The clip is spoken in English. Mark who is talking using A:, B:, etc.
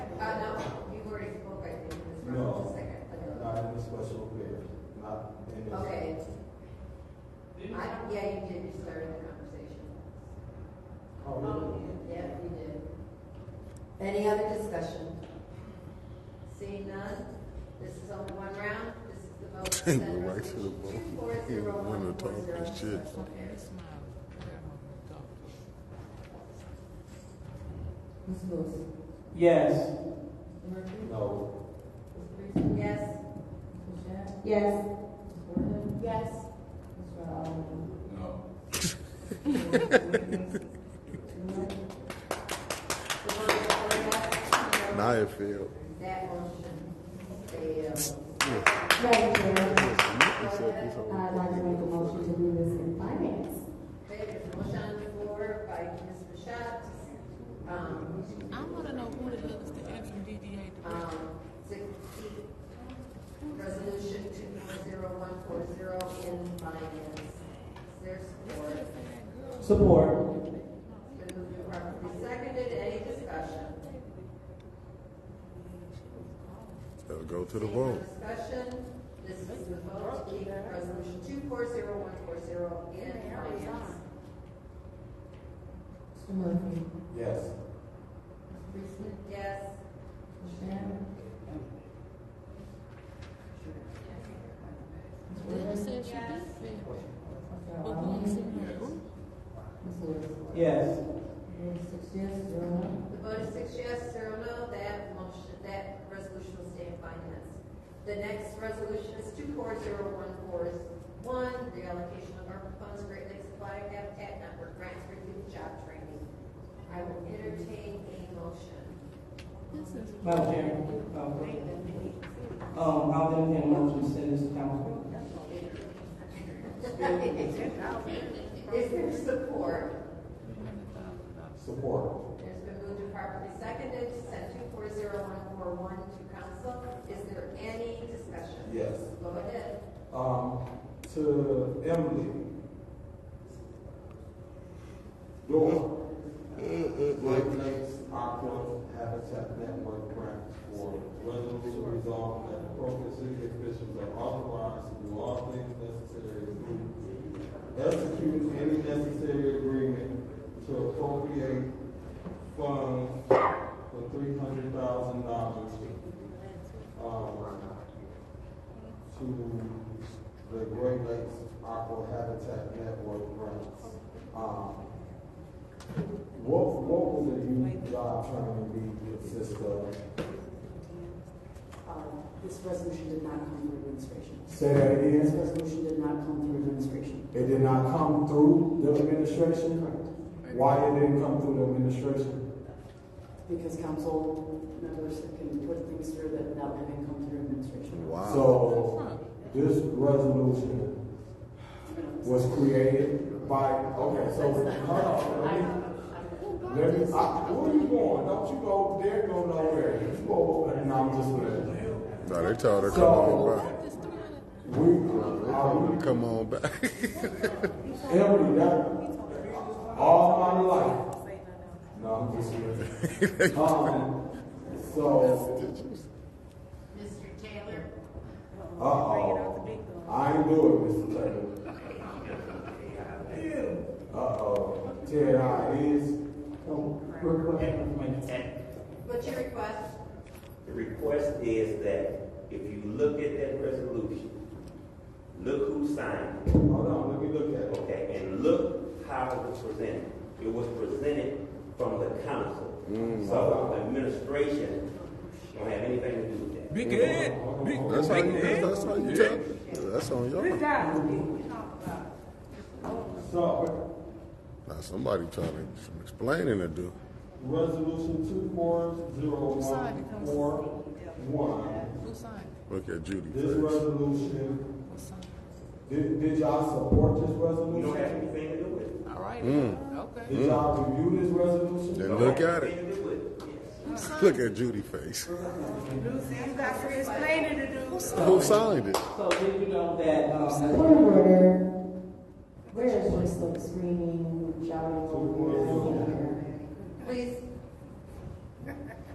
A: Uh,
B: Uh, it
A: Okay,
B: was-
A: I,
C: Didn't
A: yeah, you did, you started the conversation.
B: Oh, really?
A: Yeah, you did. Any other discussion? Seeing none, this is only one round, this is the vote.
D: Hey, we're right to the vote.
A: Two, four,
D: He
A: zero,
D: don't wanna
A: one, four,
D: talk
A: zero,
D: this shit.
A: special carries. Ms. Lewis.
E: Yes.
B: No,
A: Yes.
F: Yes.
A: Yes.
C: No.
A: The one before that, no.
D: Now it feel.
A: That motion failed.
F: Madam Chair,
D: Yes,
F: I'd like to make a motion to do this in finance.
A: There's a motion on the floor by Ms. Bishop, um,
G: I wanna know who the hell is the interim DDA director?
A: um, to keep resolution two four zero one four zero in finance. Is there support?
E: Support.
A: Been moved and properly seconded, any discussion?
D: Let's go to the vote.
A: Discussion, this is the vote to keep resolution two four zero one four zero in finance.
F: Mr. Murphy.
B: yes.
A: Yes.
G: They said she did fail. But we ain't seen her group.
E: Yes.
A: The vote is six yes, zero no, that motion, that resolution will stay in finance. The next resolution is two four zero one four is one, the allocation of ARPA funds, Great Lakes Aquatic Habitat Network grants for youth job training. I will entertain a motion.
G: This is.
E: Madam Chair, um, um, I'll entertain a motion to send this to council.
A: Is there support?
B: Support.
A: It's been moved and properly seconded to send two four zero one four one to council. Is there any discussion?
B: Yes.
A: Go ahead.
B: Um, to Emily. Door. Great Lakes Mm-hmm. Aqua Habitat Network grant for resolution resolving that appropriate city officials are authorized to do all things necessary to execute any necessary agreement to appropriate funds for three hundred thousand dollars. Um, to the Great Lakes Aqua Habitat Network grants. Um, What, what will the youth job training be consist of?
H: Um, This resolution did not come through administration.
B: Say that
H: This
B: again?
H: resolution did not come through administration.
B: It did not come through the administration? Why it didn't come through the administration?
H: Because council members can put things through that without having come through administration.
D: Wow.
B: So, this resolution was created by, okay, so, hold on, let me- Let me, I, where you going? Don't you go, there go nowhere. You go, over there, and I'm just there.
D: Now they told her come on
G: This three hundred.
B: We,
D: back.
B: are we,
D: Come on back.
B: Emily, that, all my life. No, I'm just kidding. Um, so,
A: Mr. Taylor?
B: uh-oh. I ain't doing it, Mr. Taylor. Uh-oh. Ted, I is,
A: What's your request?
I: The request is that if you look at that resolution, look who signed it,
B: hold on, let me look at it.
I: okay, and look how it was presented. It was presented from the council.
D: Mm.
I: So administration don't have anything to do with that.
B: Big head, big
D: That's how you, that's how you tell. That's on y'all.
B: So,
D: Now somebody trying to some explaining to do.
B: Resolution two four zero one four one.
G: Who signed it?
D: Look at Judy
B: This
D: first.
B: resolution,
G: Who signed it?
B: did, did y'all support this
I: You don't have
B: resolution?
I: anything to do with it.
G: All right,
D: Mm.
G: okay.
B: Did y'all review this resolution?
D: Then look at it.
I: Anything to do with it, yes.
D: Look at Judy face. Who signed it?
E: So did you know that, um,
F: Point of order. Where is voice like screaming, shouting over here?
A: Please